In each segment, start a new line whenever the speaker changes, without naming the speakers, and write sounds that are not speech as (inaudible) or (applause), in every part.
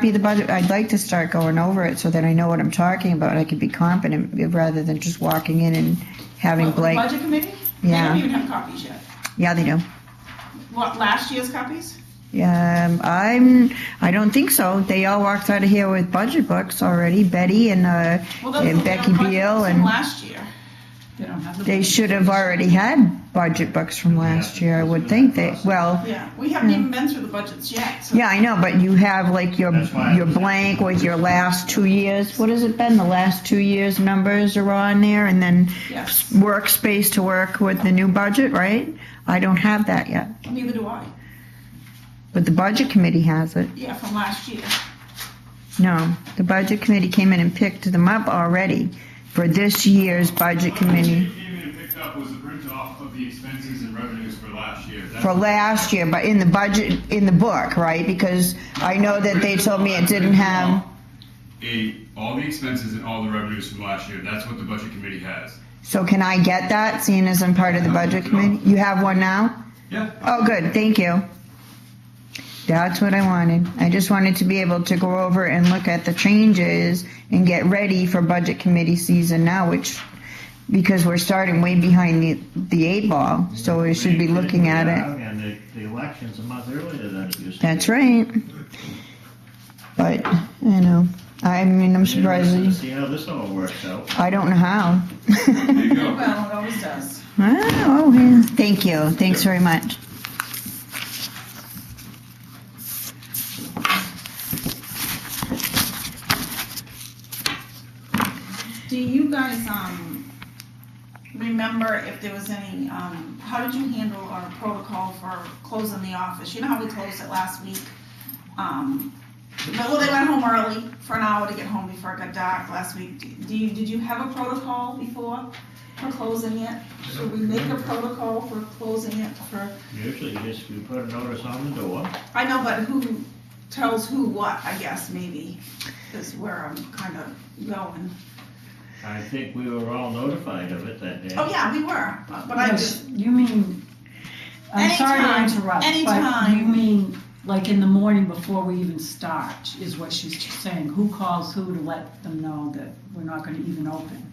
be the budget, I'd like to start going over it so that I know what I'm talking about, I can be competent, rather than just walking in and having
What, the
blank.
Budget committee? They
Yeah.
don't even have copies yet.
Yeah, they do.
What, last year's copies?
Yeah, um, I'm, I don't think so, they all walked out of here with budget books already, Betty and, uh,
Well, those-
and
they don't
Becky
collect
Beal,
those from
and
Last year. They don't have the.
they should have already had budget books from last year, I would think, they, well,
Yeah, we haven't even been through the budgets yet, so.
Hmm. yeah, I know, but you have like your,
That's why I
your
was-
blank with your last two years, what has it been, the last two years' numbers are on there, and then
Yes,
workspace to work with the new budget, right? I don't have that yet,
neither do I.
but the budget committee has it.
Yeah, from last year.
No, the budget committee came in and picked them up already for this year's budget
What
committee
you came in and picked up was the print off of the expenses and revenues for last year. That's-
for last year, but in the budget, in the book, right? Because I know that they told me it didn't have,
A, all the expenses and all the revenues from last year, that's what the budget committee has.
so can I get that, seeing as I'm part of the budget committee? You have one now?
Yeah.
Oh, good, thank you. That's what I wanted. I just wanted to be able to go over and look at the changes and get ready for budget committee season now, which, because we're starting way behind the, the eight ball, so we should be looking at it.
And the, the election's a month earlier than it used to be.
That's right. But, you know, I mean, I'm surprised,
Interesting to
that-
See how this all works out.
I don't know how. (laughs)
There you go.
Well, it always does.
Oh, yeah. Thank you, thanks very much.
Do you guys, um, remember if there was any, um, how did you handle our protocol for closing the office? You know how we closed it last week? Um, well, they went home early for an hour to get home before it got dark last week. Do you, did you have a protocol before for closing it? Should we make a protocol for closing it for,
Usually just you put a notice on the door.
I know, but who tells who what, I guess, maybe, is where I'm kind of going.
I think we were all notified of it that day.
Oh, yeah, we were, but I just,
Yes, You mean, I'm sorry to
Anytime,
interrupt, but
anytime.
you mean, like in the morning before we even start, is what she's saying, who calls who to let them know that we're not gonna even open,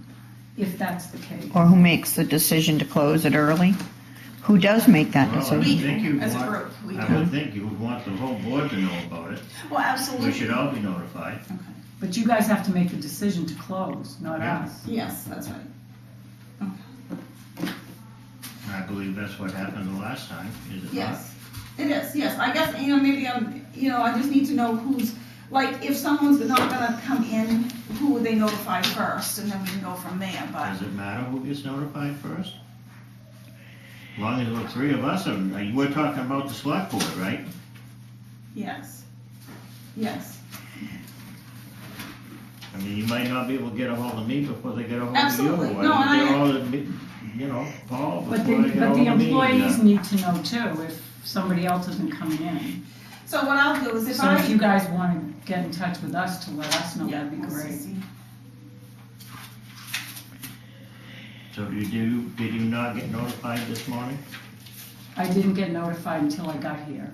if that's the case.
Or who makes the decision to close it early? Who does make that
Well, I
decision?
We-
think you
as a
want-
group, we
I
do.
would think you would want the whole board to know about it.
well,
We
absolutely.
should all be notified.
But you guys have to make the decision to close, not
Yeah.
us.
Yes, that's right.
I believe that's what happened the last time, is it not?
Yes, it is, yes. I guess, you know, maybe I'm, you know, I just need to know who's, like, if someone's not gonna come in, who would they notify first, and then we can go from there, but,
Does it matter who gets notified first? As long as the three of us are, like, we're talking about the select board, right?
yes. Yes,
I mean, you might not be able to get a hold of me before they get a hold of you. or
Absolutely. No, and
Get
I-
a hold of me, you know, Paul
But
before they
the,
get a
but
hold
the
of me.
employees
yeah.
need to know too, if somebody else isn't coming in.
so what I'll do is if
So
I.
if you guys wanna get in touch with us to let us know,
Yeah,
that'd be
we'll
great.
see.
So you do, did you not get notified this morning?
I didn't get notified until I got here.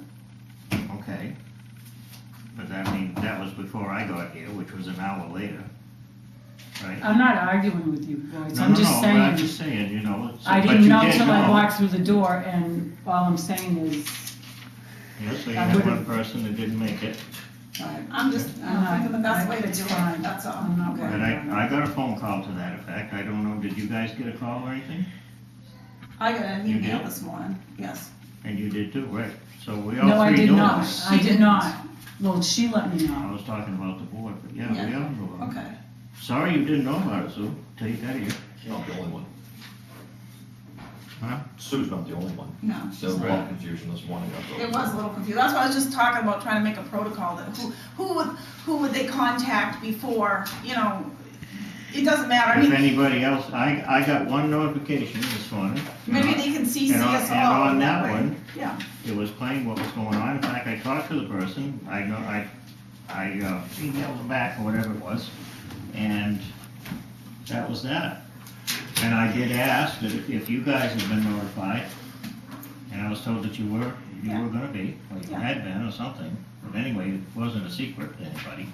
Okay. But that means, that was before I got here, which was an hour later, right?
I'm not arguing with you, Boyd,
No,
Uh, I'm
no,
just
no, but
saying.
I'm just saying, you know, it's.
I
but
didn't
you
know
did
till I
know.
walked through the door, and all I'm saying is,
Yeah, so you
I
had one
would've-
person that didn't make it.
uh,
I'm just, I'm thinking the best way to do it, that's all.
I'm not
But
worried
I, I
about it.
got a phone call to that effect. I don't know, did you guys get a call or anything?
I got an
You
email
did?
this morning, yes.
And you did too, right? So we
No,
all
I
three
did
knew
not,
this.
I
She
did
didn't.
not, well, she let
I
me know,
was talking about the board, but yeah, we
Yeah.
all knew about it.
Okay,
Sorry you didn't know about it, Sue, till you got here.
She's not the only one.
Huh?
Sue's not the only one.
no.
There was a lot of confusion this morning. I
It
thought.
was a little confused. That's why I was just talking about trying to make a protocol that who, who would, who would they contact before, you know, it doesn't matter. I
If
mean,
anybody else, I, I got one notification this morning.
maybe they can CC
And on-
us all.
and on that
way.
one-
Yeah,
It was plain what was going on. In fact, I talked to the person. I know, I, I uh, emailed them back or whatever it was. And that was that. And I did ask that if- if you guys had been notified, and I was told that you were, you were gonna be, or you
Yeah.
had been or something, but anyway, it wasn't a secret to anybody.